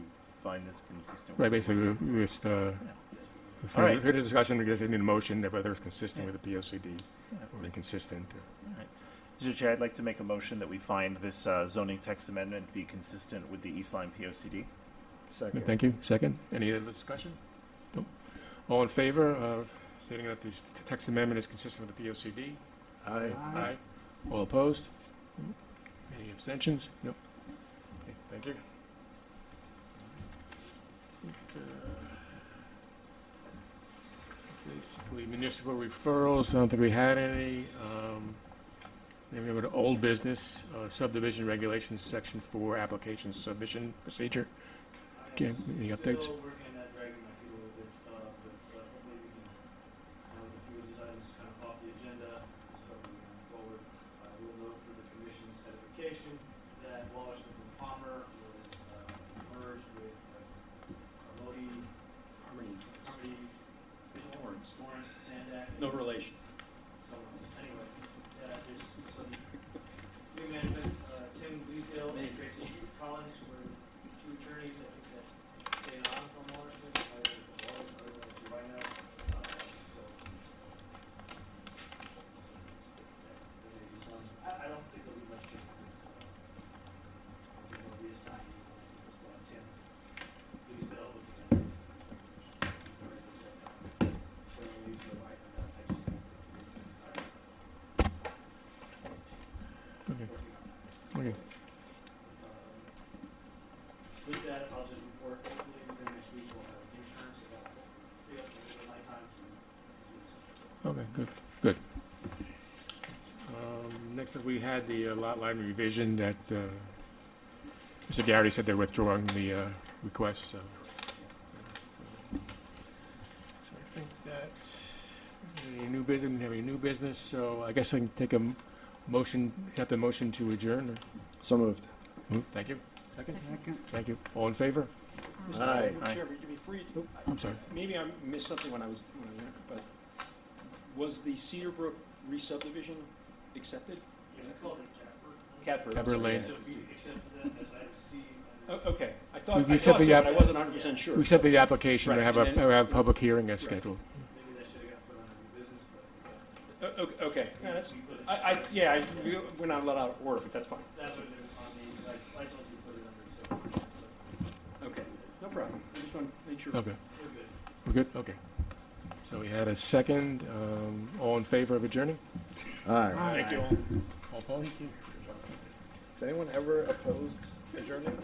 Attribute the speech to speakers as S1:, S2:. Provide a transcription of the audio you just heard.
S1: find this consistent.
S2: Right,
S1: with-
S2: basically, we- we just, uh,
S1: All right.
S2: further further discussion, I guess, in the motion, of whether it's consistent with the POCD
S1: Yeah.
S2: or inconsistent.
S1: All right. Mr. Chair, I'd like to make a motion that we find this uh, zoning text amendment be consistent with the East Line POCD.
S3: Second.
S2: Thank you. Second, any other discussion? No. All in favor of stating that this t- text amendment is consistent with the POCD?
S3: Aye.
S2: Aye. All opposed? No. Any abstentions? No. Okay, Thank you. Basically municipal referrals, I don't think we had any. Um, Then we go to old business uh, subdivision regulations, section four, application submission procedure. Okay, any updates?
S4: Still working on that, dragging my feet a little bit, uh, but uh, hopefully we can, now with a few of these items kind of off the agenda, so we can move forward. I will note for the commission's edification that Wallace and Palmer was uh, merged with uh, Carmody,
S5: Harmony,
S4: Carmody, Lawrence, Lawrence, Sandak. and-
S5: no relation.
S4: someone else. Anyway, uh, there's some new management, uh, Tim Leesdale and Tracy Collins were two attorneys, I think that stayed on from Wallerston, I don't know, I don't know, do I know? Uh, so. There may be some, I, I don't think there'll be much uh, change. We're gonna reassign you, just want Tim Leesdale with the others. Sorry, that's it. So Leesdale, I, I'm not touching it.
S2: Okay, okay.
S4: With that, I'll just report, hopefully within next week we'll have interns about, we have to my time to do this.
S2: Okay, good, good. Um, Next up, we had the uh, lot line revision that uh, Mr. Garrity said they're withdrawing the uh, request, so. So I think that, any new business, didn't have any new business, so I guess I can take a m- motion, have the motion to adjourn.
S3: So moved.
S2: or- Thank you, second? Thank you. All in favor?
S3: Aye.
S1: Aye.
S5: Mr. Chair, would you be free,
S3: Nope.
S2: I'm sorry.
S5: maybe I missed something when I was, when I went, but was the Cedar Brook re-subdivision accepted?
S4: Yeah, we called it Catbird.
S5: Catbird. I'm
S2: Catbird
S5: sorry.
S2: Lane.
S4: So we accepted that as item C.
S5: O-
S4: under-
S5: Okay, I
S2: We-
S5: thought,
S2: we
S5: I
S2: accept
S5: thought so,
S2: the
S5: but
S2: app-
S5: I wasn't hundred percent sure.
S2: We accept the application, and
S5: Right,
S2: have
S5: and
S2: a,
S5: then-
S2: have a public hearing as
S5: Right.
S2: scheduled.
S4: Maybe that should have got put on new business, but. uh,
S5: O- o- Okay, no, that's,
S4: we put it-
S5: I, I, yeah, I- we- we're not allowed out of order, but that's fine.
S4: That would have been on the, like, I told you to put it under, so
S5: Okay, no problem. I just want to make sure.
S2: Okay.
S4: we're good.
S2: We're good? Okay. So we had a second. Um, All in favor of adjourning?
S3: Aye.
S5: Thank you all.
S2: All opposed?
S3: Is anyone ever opposed adjournment?